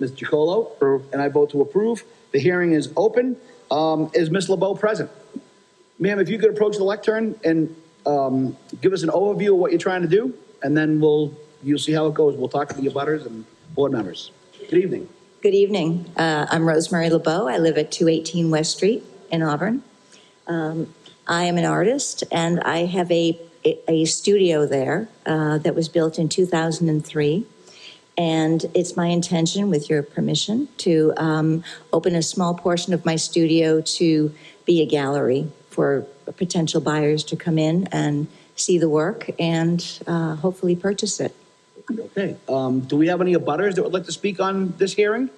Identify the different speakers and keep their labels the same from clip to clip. Speaker 1: Mr. Chacolo? And I vote to approve. The hearing is open. Um, Is Ms. LeBeau present? Ma'am, if you could approach the lectern and um, give us an overview of what you're trying to do, and then we'll, you'll see how it goes. We'll talk to the abutters and board members. Good evening.
Speaker 2: Good evening. Uh, I'm Rosemary LeBeau. I live at 218 West Street in Auburn. Um, I am an artist and I have a, a studio there uh, that was built in 2003. And it's my intention, with your permission, to um, open a small portion of my studio to be a gallery for potential buyers to come in and see the work and uh, hopefully purchase it.
Speaker 1: Okay,
Speaker 3: Uh,
Speaker 1: um, do we have any abutters that would like to speak on this hearing?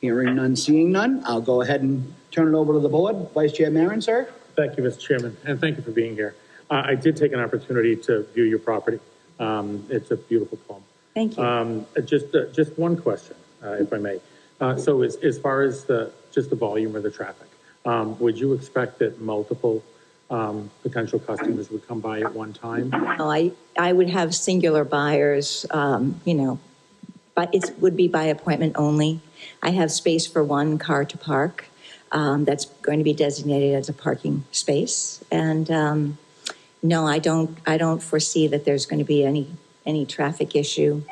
Speaker 1: Hearing none, seeing none, I'll go ahead and turn it over to the board. Vice Chair Maron, sir?
Speaker 3: Thank you, Mr. Chairman, and thank you for being here. Uh, I did take an opportunity to view your property. Um, It's a beautiful poem.
Speaker 2: Thank you.
Speaker 3: Um, uh, Just, uh, just one question, uh, if I may. Uh, So as, as far as the, just the volume of the traffic, um, would you expect that multiple um, potential customers would come by at one time?
Speaker 2: No, I, I would have singular buyers, um, you know, but it would be by appointment only. I have space for one car to park. Um, that's going to be designated as a parking space. And, um, no, I don't, I don't foresee that there's going to be any, any traffic issue.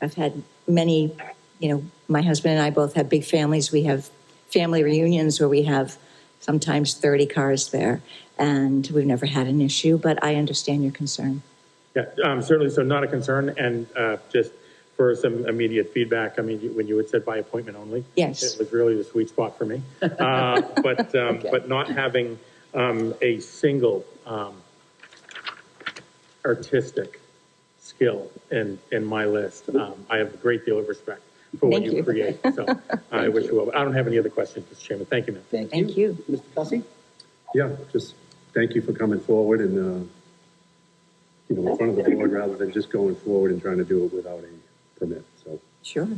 Speaker 2: I've had many, you know, my husband and I both have big families. We have family reunions where we have sometimes 30 cars there. And we've never had an issue, but I understand your concern.
Speaker 3: Yeah, um, certainly, so not a concern, and uh, just for some immediate feedback, I mean, you- when you had said by appointment only.
Speaker 2: Yes.
Speaker 3: It was really the sweet spot for me. Uh, But, um, but not having um, a single um, artistic skill in, in my list, um, I have a great deal of respect for what
Speaker 2: Thank
Speaker 3: you
Speaker 2: you.
Speaker 3: create, so uh, I wish you well. I don't have any other questions, Mr. Chairman, thank you, ma'am.
Speaker 2: Thank you.
Speaker 1: Mr. Cussy?
Speaker 4: Yeah, just thank you for coming forward and, uh, you know, in front of the board rather than just going forward and trying to do it without a permit, so.
Speaker 2: Sure.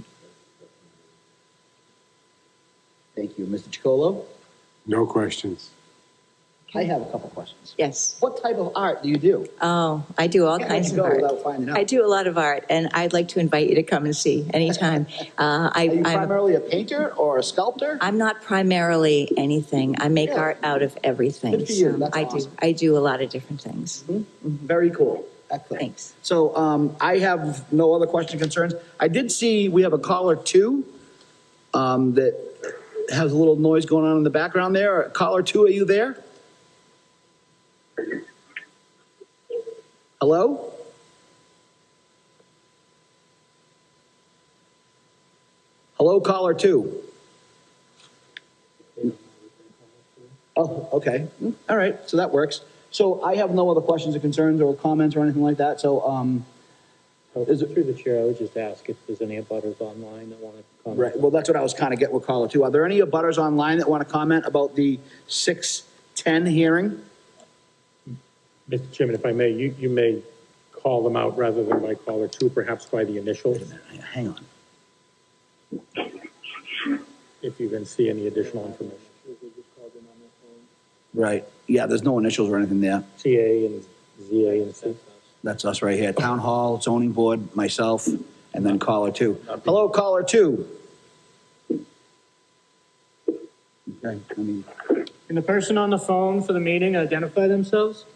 Speaker 1: Thank you. Mr. Chacolo?
Speaker 5: No questions.
Speaker 1: I have a couple questions.
Speaker 2: Yes.
Speaker 1: What type of art do you do?
Speaker 2: Oh, I do all
Speaker 1: Can't let
Speaker 2: kinds of
Speaker 1: you go
Speaker 2: art.
Speaker 1: without finding out.
Speaker 2: I do a lot of art, and I'd like to invite you to come and see anytime. Uh,
Speaker 1: Are
Speaker 2: I,
Speaker 1: you
Speaker 2: I'm,
Speaker 1: primarily a painter or a sculptor?
Speaker 2: I'm not primarily anything. I make
Speaker 1: Yeah.
Speaker 2: art out of everything.
Speaker 1: Good for you.
Speaker 2: So
Speaker 1: That's
Speaker 2: I do.
Speaker 1: awesome.
Speaker 2: I do a lot of different things.
Speaker 1: Very cool. Excellent.
Speaker 2: Thanks.
Speaker 1: So um, I have no other question concerns. I did see we have a caller two um, that has a little noise going on in the background there. Caller two, are you there? Hello? Hello, caller two? Oh, okay. Mm, All right. So that works. So I have no other questions or concerns or comments or anything like that. So, um, Is it-
Speaker 6: Through the chair, I would just ask if there's any abutters online that want to comment.
Speaker 1: right. Well, that's what I was kind of getting with caller two. Are there any abutters online that want to comment about the six ten hearing?
Speaker 3: Mr. Chairman, if I may, you, you may call them out rather than by call or two, perhaps by the initials,
Speaker 1: Hang on.
Speaker 3: if you can see any additional information.
Speaker 1: Right. Yeah. There's no initials or anything there.
Speaker 3: TA and ZA and C.
Speaker 1: That's us right here. Town hall, zoning board, myself, and then caller two. Hello, caller two. Okay. I mean,
Speaker 7: Can the person on the phone for the meeting identify themselves?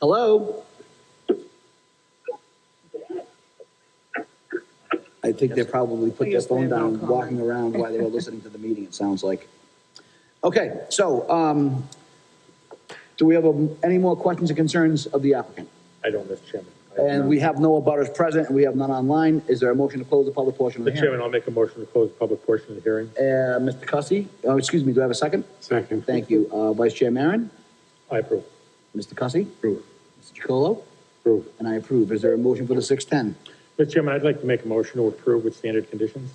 Speaker 1: hello. I think they probably put their
Speaker 7: Yes, they
Speaker 1: phone
Speaker 7: have no
Speaker 1: down,
Speaker 7: comment.
Speaker 1: walking around while they were listening to the meeting, it sounds like. Okay, so, um, do we have um, any more questions or concerns of the applicant?
Speaker 3: I don't, Mr. Chairman. I don't
Speaker 1: And
Speaker 3: know.
Speaker 1: we have no abutters present, and we have none online. Is there a motion to close the public portion of the
Speaker 3: Mr.
Speaker 1: hearing?
Speaker 3: Chairman, I'll make a motion to close the public portion of the hearing.
Speaker 1: Uh, Mr. Cussy, oh, excuse me, do I have a second?
Speaker 5: Second.
Speaker 1: Thank you. Uh, Vice Chair Maron,
Speaker 3: I approve.
Speaker 1: Mr. Cussy,
Speaker 4: Approve.
Speaker 1: Mr. Chacolo,
Speaker 3: Approve.
Speaker 1: and I approve. Is there a motion for the six-ten?
Speaker 3: Mr. Chairman, I'd like to make a motion to approve with standard conditions.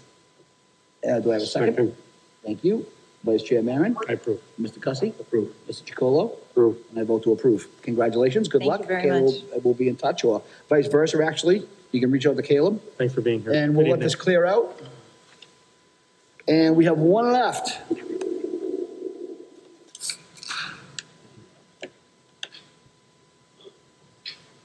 Speaker 1: Uh, do I have a second?
Speaker 5: Second.
Speaker 1: Thank you. Vice Chair Maron,
Speaker 3: I approve.
Speaker 1: Mr. Cussy. Approve. Mr. Chacolo,
Speaker 5: Approve.
Speaker 1: and I vote to approve. Congratulations, good
Speaker 2: Thank you
Speaker 1: luck.
Speaker 2: very
Speaker 1: Caleb,
Speaker 2: much.
Speaker 1: uh, We'll be in touch, or vice versa, actually. You can reach out to Caleb,
Speaker 3: Thanks for being here.
Speaker 1: and we'll
Speaker 3: Good
Speaker 1: let this
Speaker 3: evening.
Speaker 1: clear out. And we have one left.